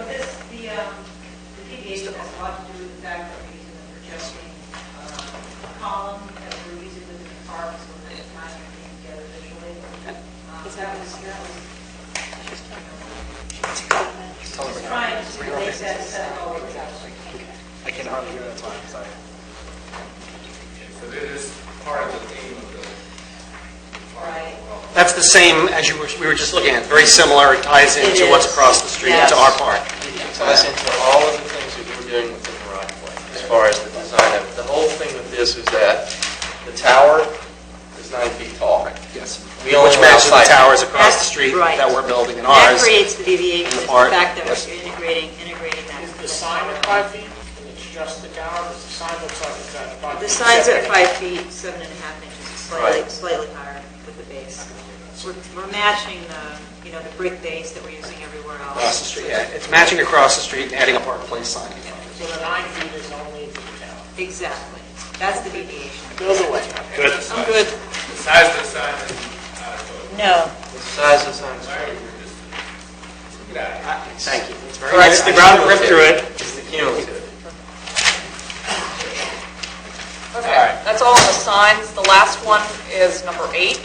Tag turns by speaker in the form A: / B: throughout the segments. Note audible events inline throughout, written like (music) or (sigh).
A: um, uh, Um,
B: They said so.
C: I can hardly hear, that's why I'm sorry.
D: So it is part of the theme of the.
B: Right.
E: That's the same as you were, we were just looking at, very similar, it ties
B: It
E: into what's
B: is.
E: across the street,
B: Yes.
E: to our park.
F: It ties into all of the things that we're doing within the right of way, as far as the design of it. The whole thing with this is that the tower is nine feet tall.
C: Yes.
F: We only
E: Which
F: allow
E: matches the
F: side-
E: towers across the
A: That's
E: street
A: right.
E: that we're building and
A: That
E: ours.
A: creates the deviation, is the
E: part,
A: fact that
E: yes.
A: we're integrating, integrating that.
G: Is the sign at five feet, and it's just the tower, because the sign looks like it's at five feet?
A: The signs are
G: separate.
A: at five feet, seven and a half inches, slightly,
F: Right.
A: slightly higher with the base. We're, we're matching the, you know, the brick base that we're using everywhere else.
E: Across the street, yeah, it's matching across the street and adding a Park Place sign.
G: So the nine feet is only the tower.
A: Exactly, that's the deviation.
G: Build away.
D: Good.
A: I'm good.
D: The size of the sign is uh, not a total.
A: No.
F: The size of the sign is
D: Why are we just- Look at that.
E: Thank you. It's very
F: All right,
E: nice.
F: the
E: I
F: ground
E: should
F: ripped
E: have-
F: through is the cumulative.
H: Okay, that's all on the signs. The last one is number eight.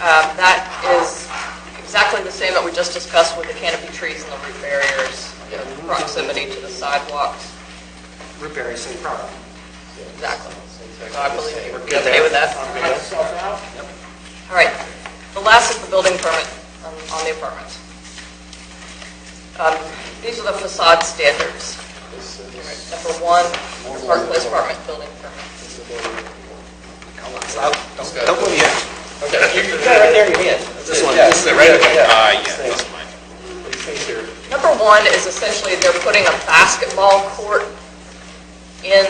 H: Um, That is exactly the same that we just discussed with the canopy trees and the root barriers, you know, proximity to the sidewalks,
E: Root berry, same problem.
H: exactly. So I believe you would be
E: Good
H: okay
E: there.
H: with that.
G: Cut yourself out.
H: All right, the last is the building permit on on the apartments. Um, These are the facade standards. Number one, Park Place apartment building permit.
E: So I'll- Don't don't move yet.
F: You got it right there in your hand.
E: This one.
F: Yeah.
E: This is it,
D: right? Okay.
F: Yeah.
D: Ah, yeah,
F: These
D: that's
F: things. These things are
H: Number one is essentially they're putting a basketball court in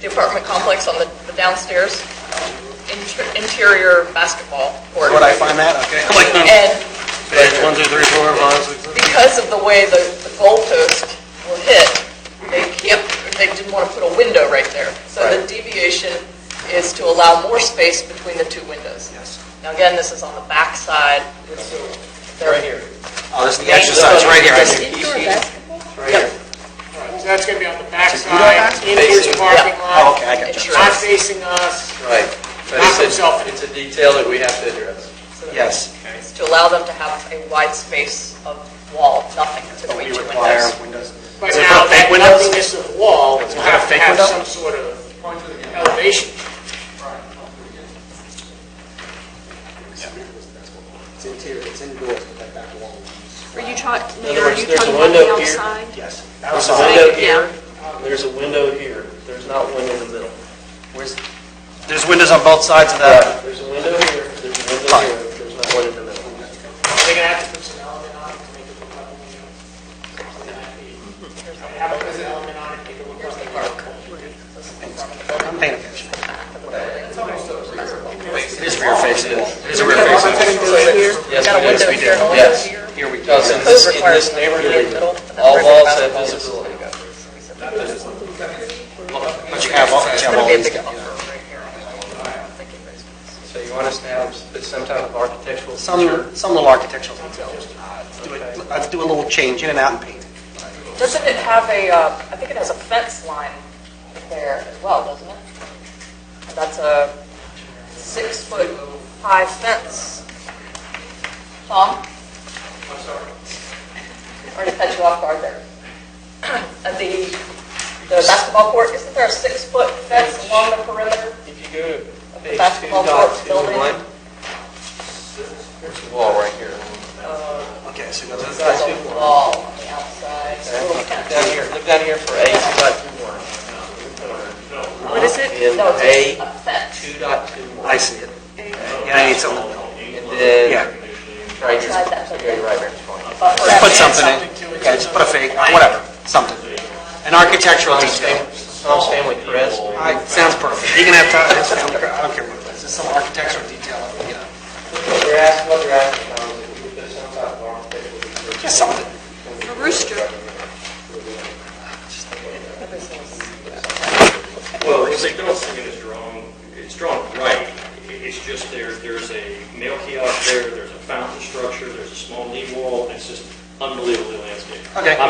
H: the apartment complex on the the downstairs, Inter- interior basketball court.
E: Would I find that? Okay. I'm like, hmm.
H: And
F: One, two, three, four, five, six, seven.
H: because of the way the the goal posts were hit, they can't, they didn't want to put a window right there. So the
F: Right.
H: deviation is to allow more space between the two windows.
E: Yes.
H: Now, again, this is on the backside.
F: Right here.
E: Oh, this is the exercise, right here. I see.
F: It's right here.
G: All right, So that's going to be on the backside, inward
F: Facing.
G: parking
E: Oh,
G: lot,
E: okay, I got you.
G: not facing us.
F: Right. But
G: Knock
F: it's
G: himself
F: a,
G: in.
F: it's a detail that we have to address.
E: Yes.
H: is to allow them to have a wide space of wall, nothing
E: But we
H: between two
E: require
H: windows.
E: windows.
G: But
E: Is it
G: now,
E: for fake
G: that
E: windows?
G: nothingness of wall, will have to
E: fake
G: have
E: window?
G: some sort of elevation.
E: It's interior, it's indoors, but that back wall.
I: Are you talking,
F: In other
I: Mayor, are
F: words,
I: you
F: there's a
I: talking about the
F: window here.
I: outside?
E: Yes.
F: There's a
E: Outside.
F: window
I: Yeah.
F: here, and there's a window here. There's not one in the middle.
E: Where's- There's windows on both sides of the,
F: There's a window here, there's a window here, there's not one in the middle.
G: They're going to have to put some element on it to make it look like a window. Something like that. Have to put an element on it, make it look like a window.
E: I'm paying attention. It is rear facing wall. It is a rear facing wall.
F: Yes,
H: Got a
F: we do.
H: window here, a window
F: Yes.
H: here.
E: Here we go.
F: Because in this, in this neighborhood, all walls have visibility.
E: But you have all, but you have all
H: It'll be a
E: these.
H: big buffer right here.
F: So you want us to have some type of architectural feature?
E: Some, some little architectural details. Do it- Let's do a little change in and out and paint.
H: Doesn't it have a, uh, I think it has a fence line there as well, doesn't it? That's a six-foot high fence. Tom? I'm sorry. Already cut you off guard there. (clears throat) At the, the basketball court, isn't there a six-foot fence along the perimeter?
F: If you go to page two
H: basketball
F: dot
H: court
F: two
H: building.
F: one, there's a wall right here.
E: Okay, so go to the,
H: There's a wall on the outside, a little fence.
F: Down here, look down here for A two dot two one.
I: What is it?
F: In
H: No,
F: A
H: it's a fence.
F: two dot two one.
E: I see it. Yeah, I need something.
F: And
E: Yeah.
F: then, right here,
H: Inside that
F: so go to right here.
H: Buffer.
E: Just put something in. Yeah, just put a fake, whatever, something. An architectural detail.
F: Tom's family crest.
E: I, sounds perfect. You can have time, it's, I don't care what it is. It's some architectural detail, you know.
F: You're asking, what you're asking, Tom, is if you could put some type of architectural feature.
E: Just something.
I: A rooster.
J: Well, if they don't think it is drawn, it's drawn right. It's just there, there's a mail kiosk there, there's a fountain structure, there's a small knee wall, it's just unbelievably landscaped.
E: Okay.
J: I'm